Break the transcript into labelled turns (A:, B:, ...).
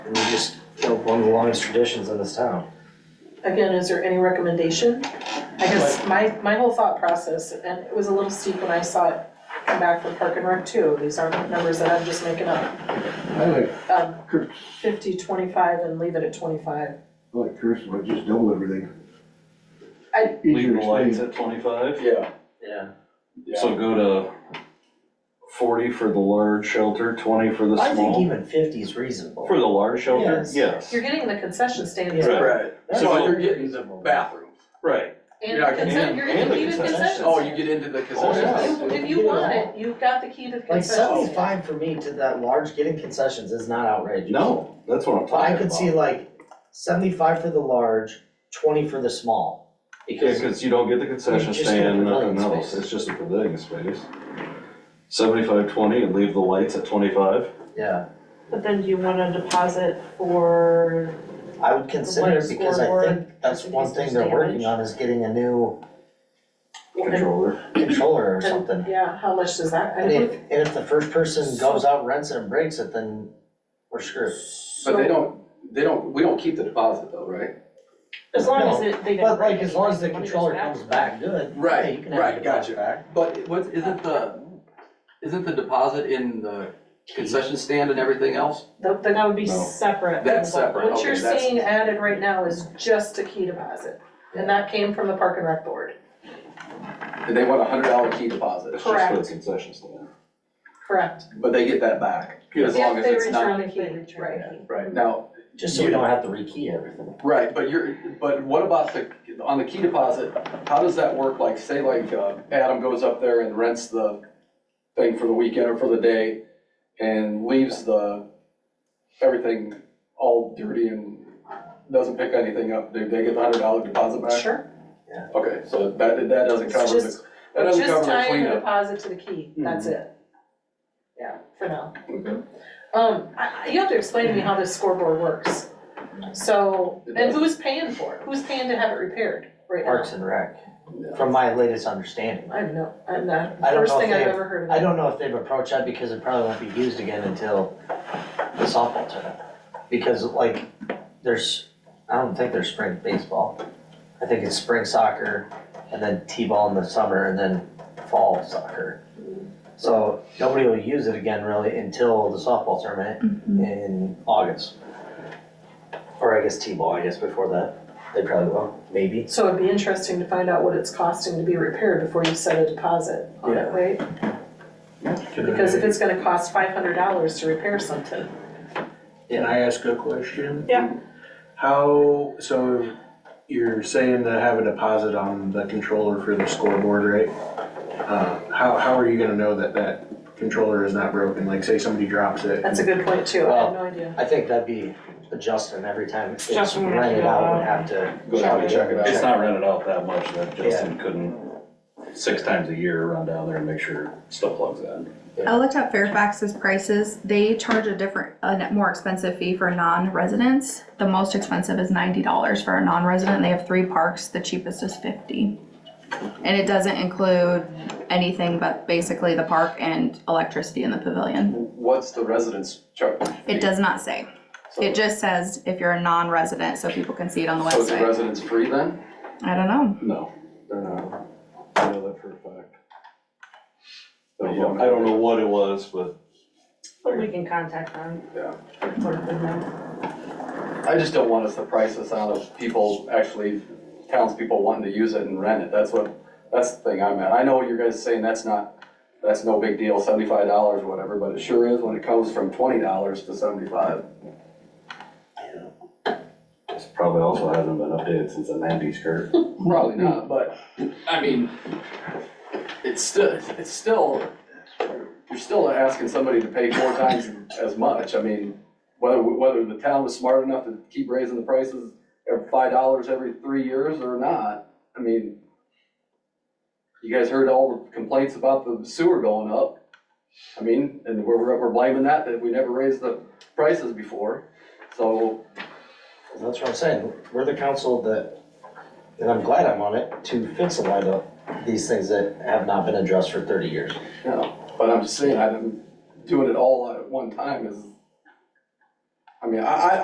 A: just, you know, one of the longest traditions in this town.
B: Again, is there any recommendation? I guess my, my whole thought process, and it was a little steep when I saw it come back from Park and Rec too, these aren't numbers that I'm just making up.
C: I like,
B: Um,
C: Kirk,
B: fifty, twenty-five, and leave it at twenty-five.
C: I like Kirk's one, just double everything.
B: I-
C: Easier
D: Leave
C: to
D: the lights
C: explain.
D: at twenty-five,
E: Yeah,
A: Yeah.
D: so go to forty for the large shelter, twenty for the
A: I think
D: small.
A: even fifty is reasonable.
D: For the large shelter,
A: Yes.
D: yes,
B: You're getting the concession stands
A: Yeah.
B: and
E: right.
A: That's
E: So
D: all
E: you're getting the
A: reasonable.
E: bathroom.
D: right,
B: the
E: Yeah,
B: consent,
D: and-
B: you're
D: and
B: getting the
D: the
B: key to the
D: concession
B: concession.
E: Oh, you get into the concession
B: If you-
E: stand.
B: If you want it, you've got the key to the
A: Like
B: concession. stand.
A: seventy-five for me to that large getting concessions is not outrageous.
D: no, that's what I'm
A: But I
D: talking
A: could
D: about.
A: see like seventy-five for the large, twenty for the small.
D: Yeah,
A: Because,
D: cause you don't get the concession
A: It's just a
D: stand,
A: pavilion
D: nothing else,
A: space.
D: it's just a pavilion space. Seventy-five, twenty, and leave the lights at twenty-five,
A: yeah,
F: But then do you want a deposit for,
A: I would consider it because I think
F: scoreboard,
A: that's
F: just in
A: one
F: case there's
A: thing they're working
F: damage.
A: on is getting a new
D: controller,
A: controller or
B: And-
A: something.
B: Yeah, how much does that, I
A: And if,
B: don't,
A: and if the first person goes out, rents it and breaks it, then we're screwed.
E: But they
B: so,
E: don't, they don't, we don't keep the deposit though, right?
F: as long as it, they didn't
A: But
F: break
A: like,
F: it.
A: as long as the
F: money goes
A: controller comes back good, yeah,
G: Right,
A: you can have
G: right,
A: it back.
G: gotcha. But what, isn't the, isn't the deposit in the concession stand and everything else?
B: the, the
F: That would be
D: No.
F: separate.
G: That's
F: than what-
G: separate,
B: What
G: okay,
B: you're
G: that's-
B: seeing added right now is just a key deposit, and that came from the Park and Rec Board,
E: And they want a hundred dollar key deposit,
D: it's just for the
B: Correct.
D: concession stand.
B: correct?
E: but they get that back, as long as it's not,
B: If they
F: They
B: return the key,
F: return
B: right.
F: it.
E: right, now,
A: Just so we don't have to rekey everything.
E: Right, but you're, but what about the, on the key deposit, how does that work, like, say like, uh, Adam goes up there and rents the thing for the weekend or for the day, and leaves the, everything all dirty and doesn't pick anything up, do they get the hundred dollar deposit back?
B: Sure,
E: Okay, so that, that doesn't
B: It's
E: cover the,
B: just-
E: that doesn't
B: just
E: cover the
B: tying the
E: cleanup. Mm-hmm.
B: deposit to the key, that's it. Yeah, for now.
E: Okay.
B: Um, I, I- you have to explain to me how this scoreboard works. So,
E: It
B: and
E: does.
B: who's paying for it? Who's paying to have it repaired right now?
A: Parks and Rec, from my latest understanding.
B: I have no, I'm not,
A: I don't
B: first
A: know
B: thing
A: if
B: I've
A: they-
B: ever heard of.
A: I don't know if they've approached that because it probably won't be used again until the softball tournament. Because like, there's, I don't think there's spring baseball. I think it's spring soccer and then T-ball in the summer and then fall soccer. So nobody will use it again really until the softball tournament in August. Or I guess T-ball, I guess before that. They probably will, maybe.
B: So it'd be interesting to find out what it's costing to be repaired before you set a deposit on it, right? Because if it's gonna cost five hundred dollars to repair something,
G: Can I ask a question?
F: Yeah.
G: How, so you're saying to have a deposit on the controller for the scoreboard, right? Uh, How, how are you gonna know that that controller is not broken? Like, say somebody drops it.
B: that's a good point too, I have no idea.
A: I think that'd be adjusting every time it's
F: Justin would have to
A: rented
F: go
A: out,
F: out.
A: would have to.
D: Go down and
E: check it out.
D: It's not rented out that much, that Justin couldn't, six times a year, run down there and make sure stuff plugs in.
H: I looked up Fairfax's prices. They charge a different, a net- more expensive fee for non-residents. The most expensive is ninety dollars for a non-resident. They have three parks. The cheapest is fifty. And it doesn't include anything but basically the park and electricity in the pavilion.
E: What's the residence chart?
H: It does not say.
E: So-
H: It just says if you're a non-resident, so people can see it on the
E: So is the
H: website.
E: residence free then?
H: I don't know.
D: No, they're not, uh, I know that for a fact. I don't know- I don't know what it was, but
F: But we can contact them.
E: Yeah.
F: Sort of thing.
E: I just don't want us to price this out of people, actually townspeople wanting to use it and rent it, that's what, that's the thing I'm at. I know you guys are saying that's not, that's no big deal, seventy-five dollars, whatever, but it sure is when it comes from twenty dollars to seventy-five.
D: it's probably also hasn't been updated since the nineties, Kurt.
E: Probably not, but, I mean, it's still, it's still, you're still asking somebody to pay four times as much, I mean, whether, whether the town was smart enough to keep raising the prices every five dollars every three years or not, I mean, you guys heard all the complaints about the sewer going up, I mean, and we're, we're blaming that, that we never raised the prices before, so,
A: That's what I'm saying, we're the council that, and I'm glad I'm on it, to fix a lot of these things that have not been addressed for thirty years.
E: you know, but I'm just saying, I didn't, doing it all at one time is, I mean, I, I,